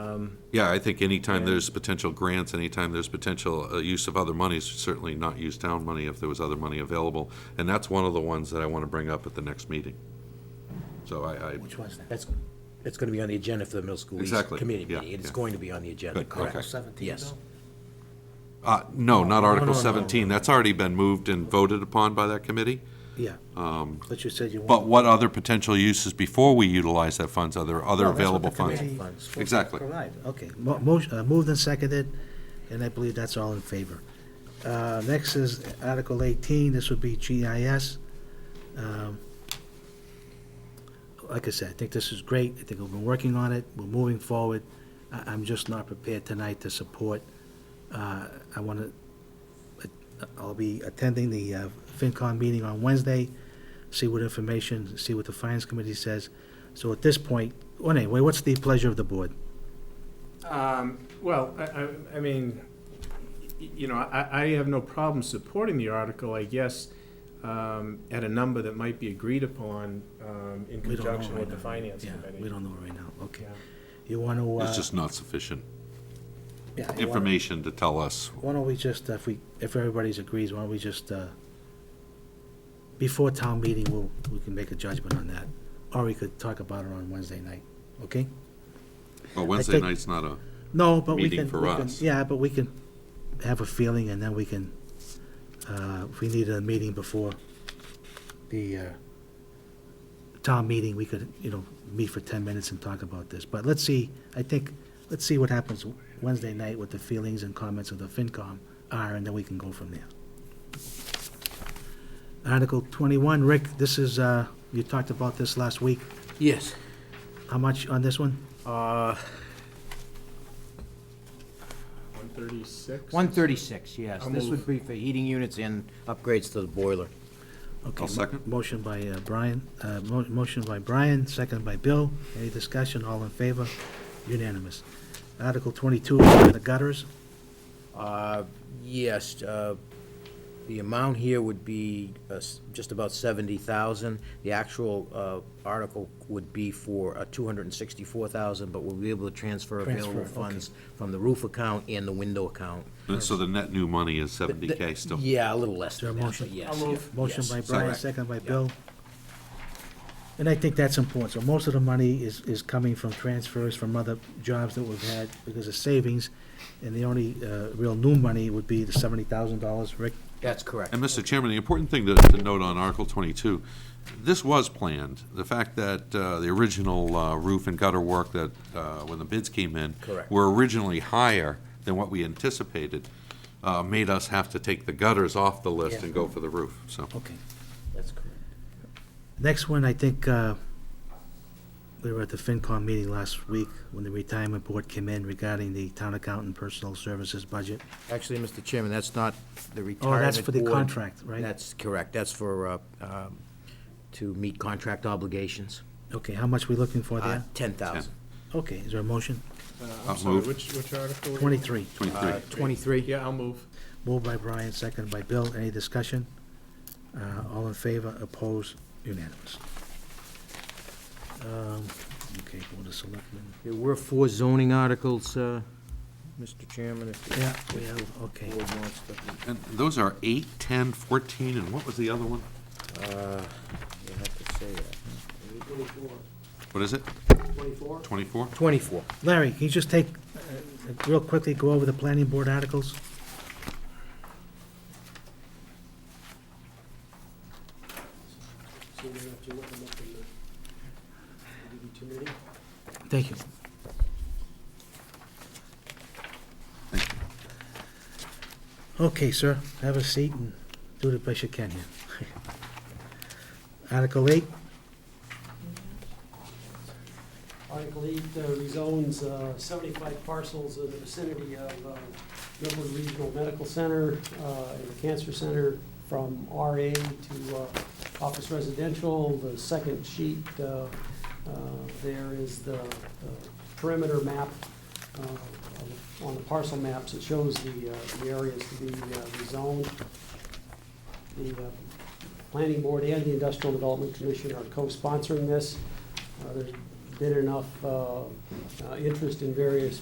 um, Yeah, I think anytime there's potential grants, anytime there's potential uh, use of other monies, certainly not use town money if there was other money available. And that's one of the ones that I want to bring up at the next meeting. So I, I, Which one's that? That's, that's gonna be on the agenda for the middle school East Exactly, committee yeah, meeting. It's yeah. going to be on the agenda, Good, correct? okay. Seventeen, Yes. uh, no, not Article no, no, no. 17. That's already been moved and voted upon by that committee. Yeah. Uh, But you said you But what other potential uses before we utilize that funds? Are there Oh, other Well, that's what available the funds? committee funds will Exactly. Provide, okay. Mo- Motion, uh, moved and seconded, and I believe that's all in favor. Uh, next is Article eighteen, this would be GIS. Um, Like I said, I think this is great, I think we've been working on it, we're moving forward. I, I'm just not prepared tonight to support, uh, I wanna, uh, I'll be attending the, uh, FinCon meeting on Wednesday, see what information, see what the Finance Committee says. So at this point, well, anyway, what's the pleasure of the board? Um, Well, I- I- I mean, y- you know, I I have no problem supporting the article, I guess, um, at a number that might be agreed upon um, in We don't know conjunction right with the now. Finance Yeah, Committee. We don't know right now, okay. Yeah. You want to, uh... It's just not sufficient yeah, you wanna- information to tell us. Why don't we just, if we, if everybody's agrees, why don't we just, uh, before town meeting, we'll, we can make a judgment on that, or we could talk about it on Wednesday night, okay? Well, Wednesday think- night's not a, No, but we Meeting can, for we can- us. yeah, but we can have a feeling, and then we can, uh, if we need a meeting before the, uh, town meeting, we could, you know, meet for ten minutes and talk about this, but let's see, I think, let's see what happens Wednesday night, what the feelings and comments of the FinCom are, and then we can go from there. Article twenty-one, Rick, this is, uh, you talked about this last week, Yes. how much on this one? Uh, 136? 136, yes. I'll This would move. be for heating units and upgrades to the boiler. Okay. I'll mo- second. Motion by uh, Brian, uh, mo- motion by Brian, second by Bill. Any discussion? All in favor? Unanimous. Article 22, the gutters. Uh, Yes, uh, the amount here would be uh, s- just about 70,000. The actual uh, article would be for uh, 264,000, but we'll be able to transfer Transfer, available okay. funds from the roof account and the window account. so the net new money is Th- 70K still. Yeah, a little less there a than that, motion? but yes. I'll move. Motion Yes. by Brian, Second. second by Bill. And I think that's important. So most of the money is, is coming from transfers from other jobs that we've had because of savings. And the only uh, real new money would be the $70,000, Rick? That's correct. And Mr. Chairman, the important thing to, to note on Article twenty-two, this was planned. The fact that, uh, the original uh, roof and gutter work that, uh, when the bids came in. Correct. Were originally higher than what we anticipated, uh, made us have to take the gutters off the list Yeah. Uh, and go for the roof, so. Okay. That's correct. Next one, I think, uh, we were at the FinCom meeting last week when the retirement board came in regarding the town accountant personal services budget. Actually, Mr. Chairman, that's not the retirement Oh, that's for the board. contract, right? That's correct. That's for, uh, um, to meet contract obligations. Okay, how much we looking for Uh, there? 10,000. Okay, is there a motion? Uh, I'll I'm sorry, move. which, which article? were you on? Twenty-three. Twenty-three. Uh, 23? Yeah, I'll move. Moved by Brian, second by Bill. Any discussion? Uh, all in favor, opposed, unanimous. Um, okay, Board of Selectmen. There were four zoning articles, uh, Mr. Chairman, if the Yeah, we have, okay. board wants to. And those are eight, ten, fourteen, and what was the other one? Uh, You have to say that. What is it? Twenty-four. Twenty-four? 24. Larry, can you just take, uh, real quickly, go over the planning board articles? So we don't have to look them up in the, give you too many. Thank you. Okay, sir, have a seat and do the best you can here. Article eight, Article eight uh, rezones uh, seventy-five parcels in the vicinity of uh, Millwood Regional Medical Center uh, and the Cancer Center from RA to uh, office residential. The second sheet, uh, uh, there is the the perimeter map uh, on the parcel maps. It shows the uh, the areas to be uh, rezoned. The uh, planning board and the industrial development commission are co-sponsoring this. Uh, There's been enough uh, uh, interest in various